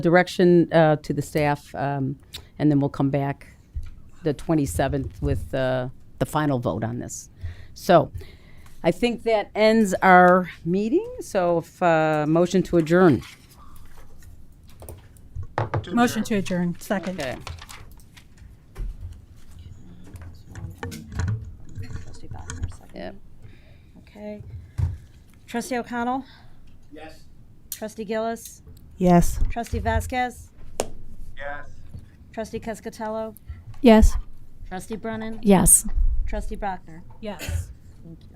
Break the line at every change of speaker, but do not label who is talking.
direction uh, to the staff, um, and then we'll come back the 27th with uh, the final vote on this. So I think that ends our meeting, so if, uh, motion to adjourn.
Motion to adjourn, second.
Okay.
Trustee Bachner, second.
Yep.
Okay. Trustee O'Connell?
Yes.
Trustee Gillis?
Yes.
Trustee Vasquez?
Yes.
Trustee Cascatello?
Yes.
Trustee Brennan?
Yes.
Trustee Bachner?
Yes.